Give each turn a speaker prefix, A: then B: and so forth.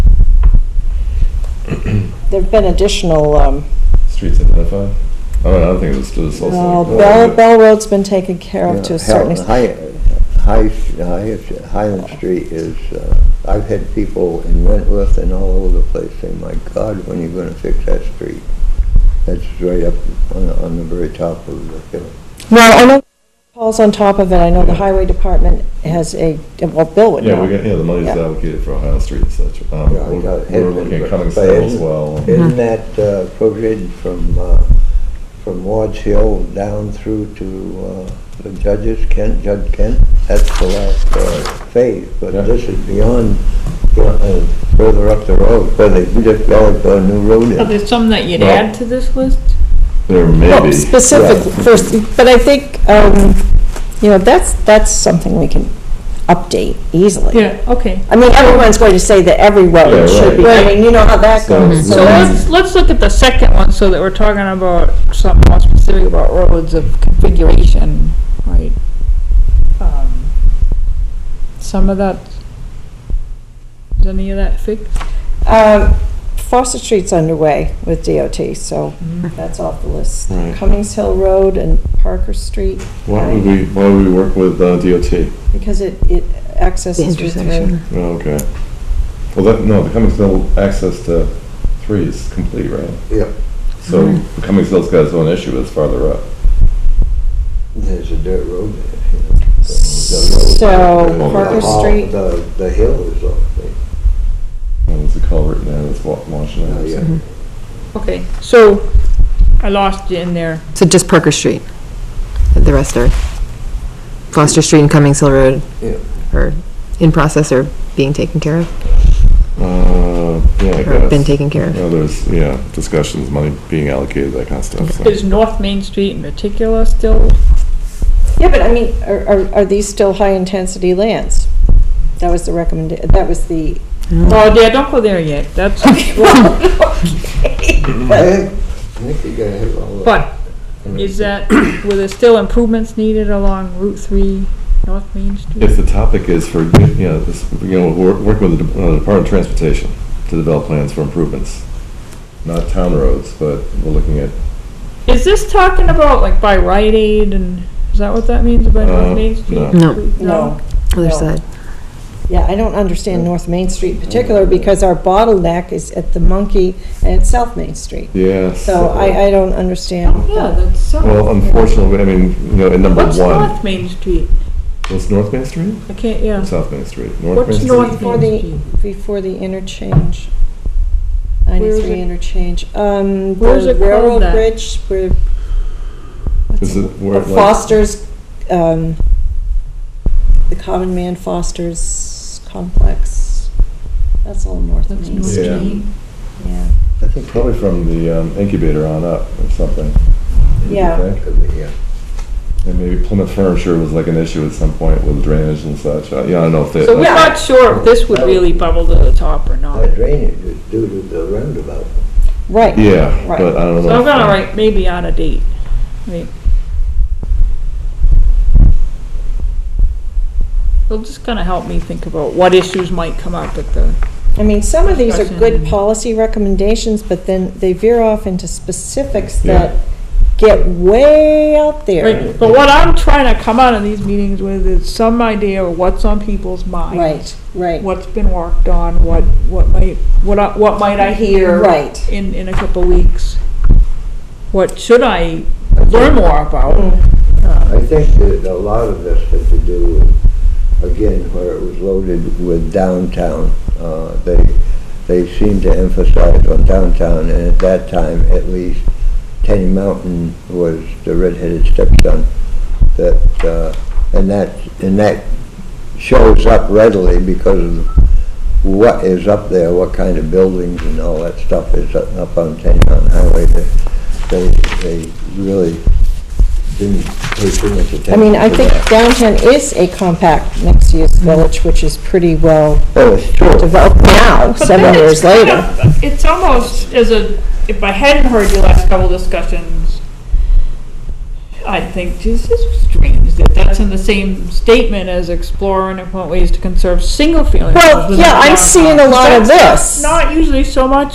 A: there've been additional, um,
B: Streets identified? I don't, I don't think it was just also.
A: well, uh, Bell, Bell Road's been taken care of to
C: Yeah,
A: a certain
C: Hel-
A: extent.
C: High, High, High- Highland Street is, uh, I've had people in Wentworth and all over the place say, my God, when are you gonna fix that street? That's right up on, the- on the very top of the hill.
A: Well, I know Paul's on top of it, I know the highway department has a, well, Bill would
B: Yeah,
A: know.
B: we got, yeah, the money's
A: Yeah.
B: allocated for Ohio Street and such. Um,
C: Yeah, I
B: we're-
C: got it.
B: We're looking at Cummings
C: But
B: Hill as
C: isn't-
B: well.
A: Mm-hmm.
C: Isn't that uh, provision from, uh, from Ward's Hill down through to uh, the judges, Kent, Judge Kent? That's the last uh, phase, but
B: Yeah.
C: this is beyond, uh, further up the road, where they just developed a new road
D: Are
C: in.
D: there some that you'd
B: Well-
D: add to this list?
B: There may
A: Well,
B: be.
A: specific, first, but I think, um, you know, that's, that's something we can update easily.
D: Yeah, okay.
A: I mean, everyone's going to say that every
B: Yeah,
A: road should be, I
D: right.
A: mean, you know how that
B: So-
A: goes.
D: So let's, let's look at the second one, so that we're talking about something more specific about roads of configuration, right? Um, Some of that, is any of that fixed?
A: Um, Foster Street's underway with DOT, so that's off the list.
B: Right.
A: Cummings Hill Road and Parker Street,
B: Why would we, why would we work with uh, DOT?
A: because it, it accesses you through.
B: Oh, Okay. Well, that, no, the Cummings Hill access to three is complete, right?
C: Yep.
B: So
E: Mm-hmm.
B: the Cummings Hill's got its own issue, it's farther up.
C: There's a dirt road there. you know.
A: So
C: The- the-
A: Parker
C: the hall-
A: Street,
C: The, the hill is off there.
B: Oh, There's a culvert now that's wa- washing out.
C: Oh, yeah.
A: Mm-hmm.
D: Okay, so, I lost you in there.
E: So just Parker Street, the rest are Foster Street and Cummings Hill Road
C: Yeah.
E: are in process or being taken care of,
B: Uh, yeah, I
E: or been
B: guess.
E: taken care of.
B: Well, there's, yeah, discussions, money being allocated, that kind of stuff, so.
D: Is North Main Street in particular still?
A: yeah, but I mean, are, are, are these still high-intensity lands? That was the recommend, that was the,
D: Oh, yeah, don't go there yet, that's,
C: I think- I think you gotta have all the.
D: but is
A: uh,
D: that, were there still improvements needed along Route Three, North Main Street?
B: If the topic is for, you know, this, you know, we're working with the De- uh, Department of Transportation to develop plans for improvements, not town roads, but we're looking at,
D: Is this talking about like by Rite Aid and, is that what that means by
B: Uh,
D: North Main Street?
B: no.
E: No,
A: no.
E: other
A: No.
E: side.
A: Yeah, I don't understand North Main Street in particular, because our bottleneck is at the Monkey and South Main Street.
B: yeah.
A: So I, I don't understand.
D: Yeah,
A: that.
D: that's so.
B: Well, unfortunately, I mean, you know, in number
D: What's
B: one,
D: North Main Street?
B: was North Main Street?
D: I can't, yeah.
B: South Main Street? North Main
D: What's
B: Street?
D: North
A: Before
D: Main
A: the,
D: Street?
A: before the interchange,
D: is
A: ninety-three
D: it?
A: interchange, um,
D: Where is
A: the
D: it called
A: railroad
D: that?
A: bridge, where. what's
B: Is it where
A: the
B: it like-
A: Foster's, um, the common man Foster's complex, that's all North
D: That's
A: Main
D: North
A: Street,
B: Main.
A: yeah.
C: I think
B: Probably from the um, incubator on up or something.
A: Yeah.
B: Okay.
C: Could be, yeah.
B: And maybe Plymouth Furniture was like an issue at some point with drainage and such. Uh, Yeah, I don't know if they.
D: So we're
B: that's-
D: not sure if this would really bubble to the top or not.
C: That drainage is due to the roundabout.
A: Right.
B: Yeah,
A: Right.
B: but I don't know.
D: So I'm
B: if-
D: gonna write maybe out of date. Wait. It'll just kinda help me think about what issues might come up at the,
A: I mean, some of these are good
D: Discussion.
A: policy recommendations, but then they veer off into specifics
B: Yeah.
A: that get way out there.
D: Right, but what I'm trying to come out of these meetings with is some idea of what's on people's minds.
A: Right, right.
D: what's been worked on, what, what might, what, I- what might I hear?
A: Right.
D: In, in a couple weeks. What should I learn more about?
A: Mm,
C: I think that a lot of this had to do with, again, where it was loaded with downtown. Uh, They, they seemed to emphasize on downtown, and at that time, at least, Tenny Mountain was the redheaded stepson. That, uh, and that, and that shows up readily because of what is up there, what kind of buildings and all that stuff is up up on Tenny Mountain Highway. They, they they really didn't pay too much attention
A: I mean, I
C: to
A: think
C: that.
A: downtown is a compact mixed-use village, which is pretty well
C: Oh, it's true.
A: developed now,
D: But
A: seven
D: then
A: years
D: it's kind
A: later.
D: of- It's almost as a, if I hadn't heard your last couple discussions, I'd think, geez, this is strange, that that's in the same statement as explore and implement ways to conserve single-family.
A: Well,
D: homes within
A: yeah, I'm
D: downtown."
A: seeing a lot of
D: That's
A: this.
D: Not not usually so much